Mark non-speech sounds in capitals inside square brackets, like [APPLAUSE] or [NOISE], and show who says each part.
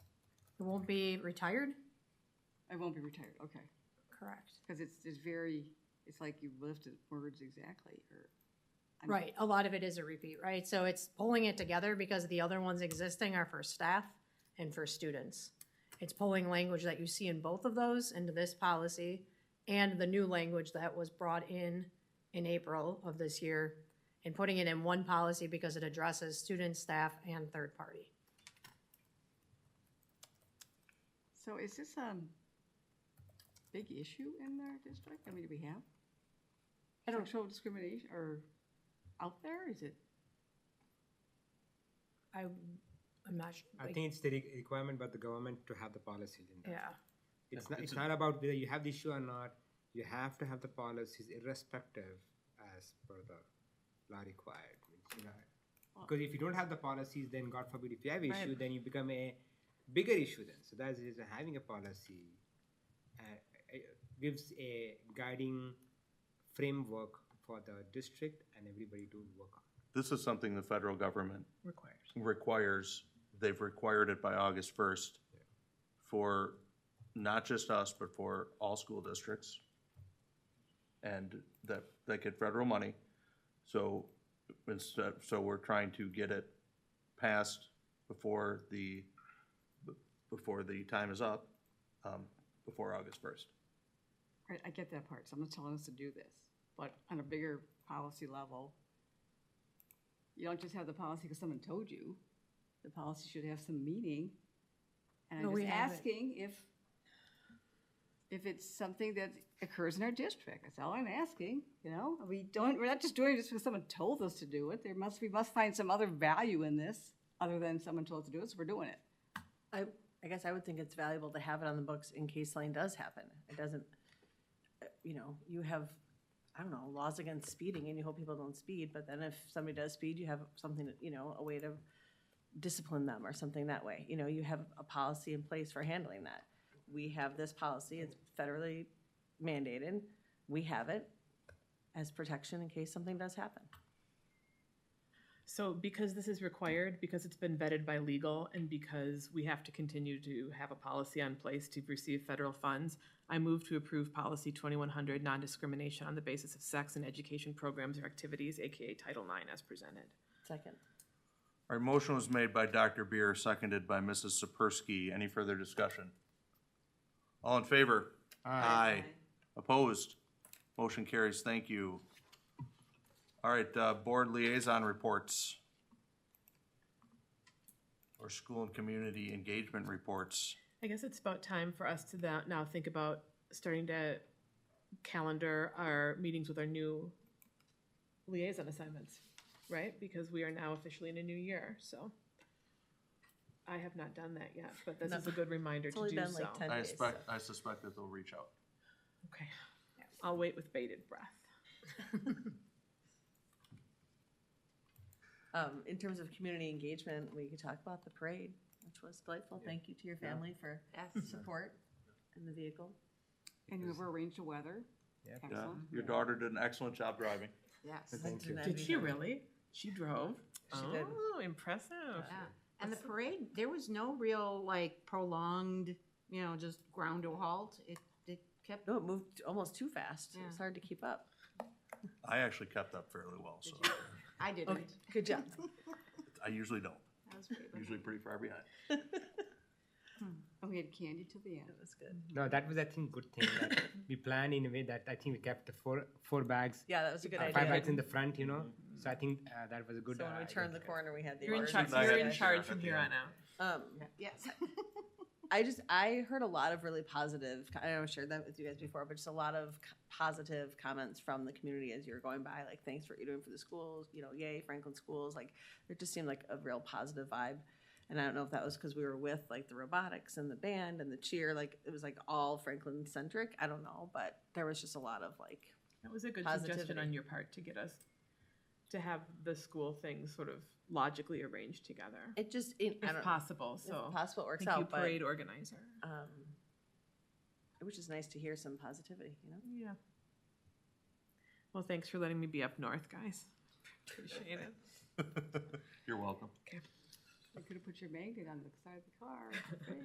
Speaker 1: You won't be retired?
Speaker 2: I won't be retired, okay.
Speaker 1: Correct.
Speaker 2: Because it's, it's very, it's like you lifted words exactly, or. I'm-
Speaker 1: Right, a lot of it is a repeat, right? So it's pulling it together because the other ones existing are for staff and for students. It's pulling language that you see in both of those into this policy and the new language that was brought in in April of this year and putting it in one policy because it addresses students, staff, and third party.
Speaker 2: So is this a big issue in our district? I mean, do we have
Speaker 1: I don't,
Speaker 2: sexual discrimination or out there? Is it?
Speaker 1: I, I'm not sure.
Speaker 3: I think it's the re- requirement by the government to have the policies in there.
Speaker 1: Yeah,
Speaker 3: It's not, it's not about whether you have the issue or not, you have to have the policies irrespective as per the law required. It's, you know, Because if you don't have the policies, then God forbid, if you have issue, then you become a bigger issue then. So that's the reason having a policy uh, uh, gives a guiding framework for the district and everybody to work on.
Speaker 4: This is something the federal government
Speaker 5: requires.
Speaker 4: requires. They've required it by August first for not just us, but for all school districts. And that, they get federal money. So instead, so we're trying to get it passed before the, before the time is up, um, before August first.
Speaker 2: Right, I get that part. Someone's telling us to do this, but on a bigger policy level, you don't just have the policy because someone told you. The policy should have some meaning. And
Speaker 1: No,
Speaker 2: I'm
Speaker 1: we
Speaker 2: just
Speaker 1: have it.
Speaker 2: asking if, if it's something that occurs in our district. That's all I'm asking, you know? We don't, we're not just doing this because someone told us to do it. There must, we must find some other value in this other than someone told us to do it, so we're doing it.
Speaker 5: I, I guess I would think it's valuable to have it on the books in case something does happen. It doesn't, uh, you know, you have, I don't know, laws against speeding and you hope people don't speed, but then if somebody does speed, you have something, that, you know, a way to discipline them or something that way. You know, you have a policy in place for handling that. We have this policy, it's federally mandated, we have it as protection in case something does happen.
Speaker 6: So because this is required, because it's been vetted by legal, and because we have to continue to have a policy on place to receive federal funds, I move to approve policy twenty-one hundred, non-discrimination on the basis of sex and education programs or activities, AKA Title IX, as presented.
Speaker 5: Second.
Speaker 4: Our motion was made by Dr. Beer, seconded by Mrs. Sapersky. Any further discussion? All in favor? Aye. Opposed? Motion carries. Thank you. All right, uh, board liaison reports. Or school and community engagement reports.
Speaker 6: I guess it's about time for us to tha- now think about starting to calendar our meetings with our new liaison assignments, right? Because we are now officially in a new year, so. I have not done that yet, but this is a good reminder
Speaker 5: It's
Speaker 6: to
Speaker 5: only
Speaker 6: do
Speaker 5: been
Speaker 6: so.
Speaker 5: like ten
Speaker 4: I
Speaker 5: days.
Speaker 4: expect, I suspect that they'll reach out.
Speaker 6: Okay, I'll wait with bated breath.
Speaker 5: Um, in terms of community engagement, we could talk about the parade, which was delightful. Thank you to your family for support in the vehicle.
Speaker 2: And whoever arranged the weather.
Speaker 3: Yeah.
Speaker 4: Yeah,
Speaker 2: Excellent.
Speaker 4: your daughter did an excellent job driving.
Speaker 7: Yes,
Speaker 3: Thank you.
Speaker 5: Didn't that
Speaker 6: Did
Speaker 5: be
Speaker 6: she
Speaker 5: nice?
Speaker 6: really? She drove?
Speaker 5: She did.
Speaker 6: Oh, impressive.
Speaker 7: yeah. And the parade, there was no real like prolonged, you know, just ground to a halt. It, it kept,
Speaker 5: No, it moved almost too fast. It was
Speaker 7: Yeah.
Speaker 5: hard to keep up.
Speaker 4: I actually kept up fairly well, so
Speaker 7: I didn't.
Speaker 5: Good
Speaker 6: [LAUGHS]
Speaker 5: job.
Speaker 4: I usually don't.
Speaker 7: That was pretty bad.
Speaker 4: Usually pretty far [LAUGHS] behind.
Speaker 2: And we had candy till the end.
Speaker 5: It was good.
Speaker 3: No, that was I think good thing
Speaker 5: [COUGHS]
Speaker 3: that we planned in a way that I think we kept the four four bags
Speaker 5: Yeah, that was a good
Speaker 3: uh, five bags in
Speaker 5: idea.
Speaker 3: the front, you know. So I think uh, that was a good.
Speaker 5: So when
Speaker 3: uh,
Speaker 5: we turned the
Speaker 3: identifier.
Speaker 5: corner, we had the.
Speaker 6: You're in
Speaker 5: orange
Speaker 6: charge,
Speaker 4: She's not
Speaker 6: you're
Speaker 4: having
Speaker 6: in
Speaker 4: a
Speaker 6: charge
Speaker 4: sheriff
Speaker 6: from
Speaker 4: at the
Speaker 6: here on
Speaker 4: end.
Speaker 6: out.
Speaker 5: Um,
Speaker 7: Yes.
Speaker 5: I just I heard a lot of really positive. I know I shared that with you guys before, but just a lot of c- positive comments from the community as you're going by. Like, thanks for what you're doing for the schools. You know, yay Franklin schools. Like, it just seemed like a real positive vibe. And I don't know if that was because we were with like the robotics and the band and the cheer. Like, it was like all Franklin centric. I don't know, but there was just a lot of like,
Speaker 6: That was a good suggestion
Speaker 5: Positivity.
Speaker 6: on your part to get us to have the school things sort of logically arranged together,
Speaker 5: it just it, I
Speaker 6: if
Speaker 5: don't
Speaker 6: possible.
Speaker 5: know,
Speaker 6: So
Speaker 5: if possible it works
Speaker 6: thank you,
Speaker 5: out, but
Speaker 6: parade organizer.
Speaker 5: um, it was just nice to hear some positivity. You know.
Speaker 6: Yeah. Well, thanks for letting me be up north, guys. [LAUGHS] Appreciate it.
Speaker 4: You're welcome.
Speaker 2: You could have put your magnet on the side of the car.